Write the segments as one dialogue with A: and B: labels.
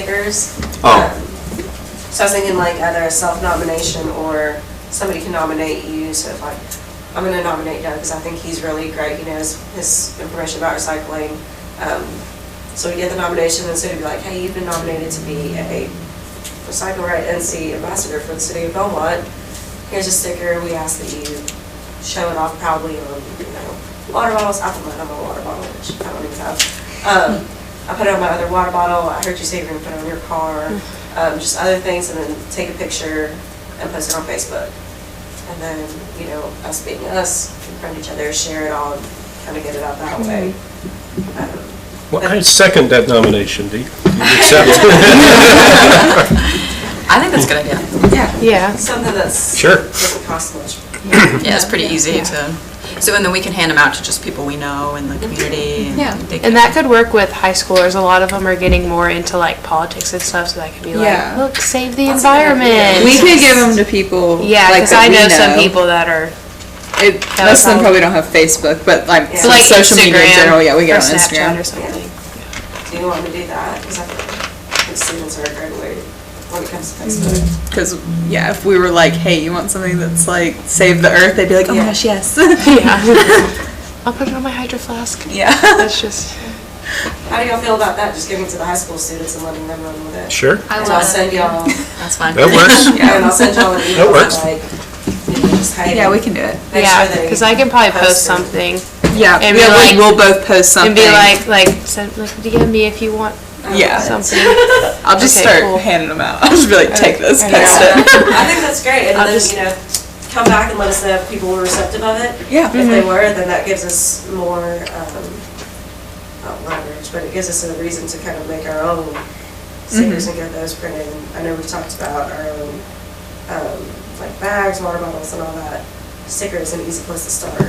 A: stickers.
B: Oh.
A: Um, So I was thinking like either a self-nomination or somebody can nominate you, so if like, I'm gonna nominate Doug, because I think he's really great, he knows his information about recycling. Um, So we get the nomination, and so it'd be like, hey, you've been nominated to be a Recycle Right NC ambassador for the city of Belmont. Here's a sticker, we ask that you show it off proudly on, you know, water bottles, I don't have a water bottle, which I don't even have. Um, I put it on my other water bottle, I heard you say you're gonna put it on your car, um, just other things, and then take a picture and post it on Facebook. And then, you know, us being us, confront each other, share it all, kind of get it out that way. Um,
B: Well, I second that nomination, Dee. Do you accept?
C: I think that's a good idea.
A: Yeah.
D: Yeah,
A: Something that's.
B: Sure.
A: Doesn't cost much.
C: Yeah, it's pretty easy
D: Yeah.
C: to, so, and then we can hand them out to just people we know in the community.
D: yeah.
C: they can-
D: And that could work with high schoolers. A lot of them are getting more into like politics and stuff, so that could be like,
E: Yeah.
D: look, save the
A: That's a good idea.
D: environment.
E: We could give them to people.
D: Yeah,
E: like,
D: because
E: that
D: I
E: we
D: know, some people that are
E: It, most
D: that
E: of
D: would
E: them probably don't have Facebook, but like
A: Yeah.
E: some
D: like
E: social
D: Instagram
E: media in general. Yeah, we
D: or
E: get on
D: Snapchat
E: Instagram.
D: or something.
A: Do you want to do that? Because I think students are graduating when it comes to Facebook.
E: Because yeah, if we were like, hey, you want something that's like save the earth, they'd be like, oh
A: Yeah.
E: my gosh, yes.
D: Yeah. I'll put it on my hydro flask.
E: yeah.
D: That's just
A: How do y'all feel about that? Just giving to the high school students and letting them run with it?
B: Sure,
A: I will. And I'll send y'all,
C: That's fine.
B: that works.
A: and I'll send y'all an email,
B: works.
A: like, you know, just hiding.
E: Yeah, we can do it.
D: yeah, because I can probably post
A: posted.
D: something
E: Yeah,
D: And
E: we,
D: be like-
E: will both post something.
D: and be like, like, send, like, DM me if you want
E: yeah.
D: something.
E: I'll just
D: okay,
E: start
D: cool.
E: handing them out. I'll just be like, take this,
A: Yeah.
E: post it.
A: I think that's great, and
D: I'll
A: then,
D: just-
A: you know, come back and let us know if people were receptive of it.
E: Yeah.
A: If
F: Mm-hmm.
A: they were, then that gives us more, um, not leverage, but it gives us a reason to kind of make our own stickers
F: Mm-hmm.
A: and get those printed. And I know we've talked about our own, um, like bags, water bottles and all that. Sticker is an easy place to start,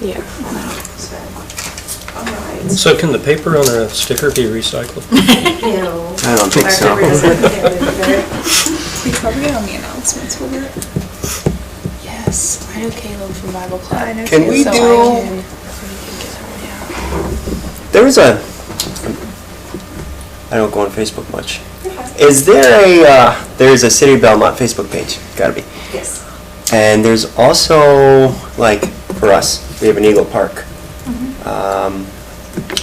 D: Yeah.
A: so, all right.
B: So can the paper on a sticker be recycled?
A: You know,
F: I don't think
A: our
F: so.
A: paper doesn't get rid of it.
E: We probably get on the announcements with it.
D: Yes, I know Caleb from Bible Club. I know
F: Can we do, there was a, I don't go on Facebook much. Is there a, uh, there's a City of Belmont Facebook page, gotta be.
A: Yes.
F: And there's also, like, for us, we have an Eagle Park.
G: Mm-hmm.
F: Um,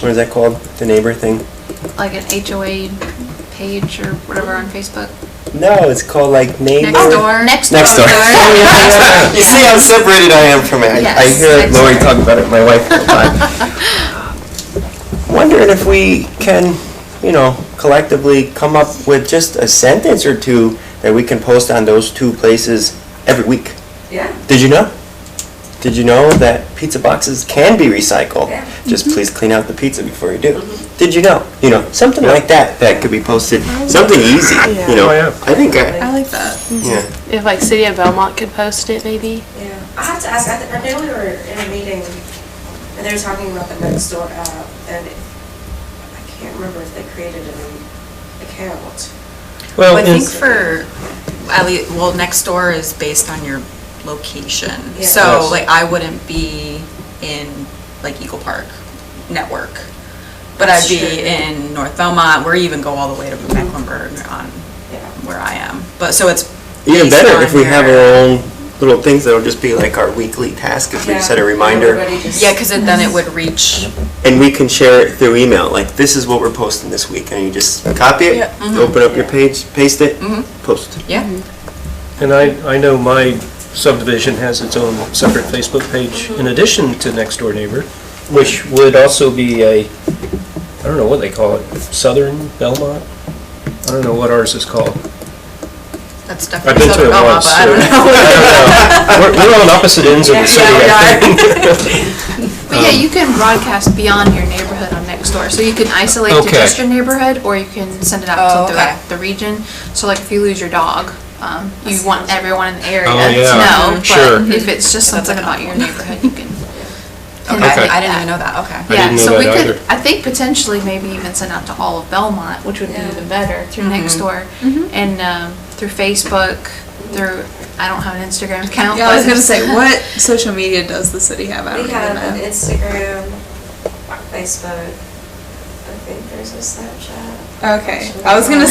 F: What is that called? The neighbor thing?
G: like an HOA page or whatever on Facebook.
F: No, it's called like neighbor.
G: Next door.
F: Next door. You see how separated I am from it. I- I
G: Yes,
F: hear
G: next
F: Lori
G: door.
F: talk about it, my wife, all the time. Wondering if we can, you know, collectively come up with just a sentence or two that we can post on those two places every week.
A: Yeah.
F: Did you know? Did you know that pizza boxes can be recycled?
A: Yeah. Mm-hmm.
F: Just please clean out the pizza before you do. Did you know? You know, something like that that could be posted. Something easy, you know.
B: Oh, yeah.
F: I think I,
E: I like that.
F: yeah.
D: If like City of Belmont could post it, maybe.
A: Yeah, I have to ask, I, th- I know we were in a meeting, and they were talking about the Nextdoor app, and I can't remember if they created an account.
B: Well,
C: I think
B: and-
C: for, at least, well, next door is based on your location.
A: Yeah.
C: So
B: Yes.
C: like I wouldn't be in like Eagle Park Network, but I'd
A: That's
C: be
A: true.
C: in North Belmont, or even go all the way to Mecklenburg on
A: Yeah.
C: where I am. But, so it's based
F: Even better
C: on
F: if we have
C: your- uh,
F: our own little things that'll just be like our weekly task if we
A: Yeah.
F: set a reminder.
A: Everybody just-
C: Yeah, because then it would reach,
F: And we can share it through email, like this is what we're posting this week. And you just copy it,
C: uh-huh.
F: open up your page, paste it,
C: Mm-hmm.
F: post.
C: yeah.
B: and I, I know my subdivision has its own separate Facebook page in addition to Next Door Neighbor, which would also be a, I don't know what they call it, Southern Belmont? I don't know what ours is called.
C: That's
B: I've
C: definitely
B: been to
C: Southern
B: it
E: Oh,
C: Belmont,
B: once.
C: but I don't know.
B: We're we're on opposite ends of the city, I think.
G: But yeah, you can broadcast beyond your neighborhood on Nextdoor. So you can isolate to
B: Okay.
G: just your neighborhood, or you can send it
C: Oh,
G: out to
C: okay.
G: throughout the region. So like if you lose your dog, um, you want everyone in the area
B: Oh, yeah.
G: to know.
B: Sure.
G: But if it's just
C: That's
G: something
C: like
G: about your neighborhood, you can.
C: Okay, I didn't even know that, okay.
B: I
G: Yeah,
B: didn't know
G: so we
B: that
G: could,
B: either.
G: I think potentially maybe even send out to all of Belmont, which would be
A: Yeah.
G: even better, through
E: Mm-hmm.
G: Nextdoor. And um, through Facebook, through, I don't have an Instagram account.
E: Yeah, I was
G: but-
E: gonna say, what social media does the city have? I don't
A: We have
E: even
A: an
E: know.
A: Instagram, Facebook, I think there's a Snapchat.
E: Okay, I was gonna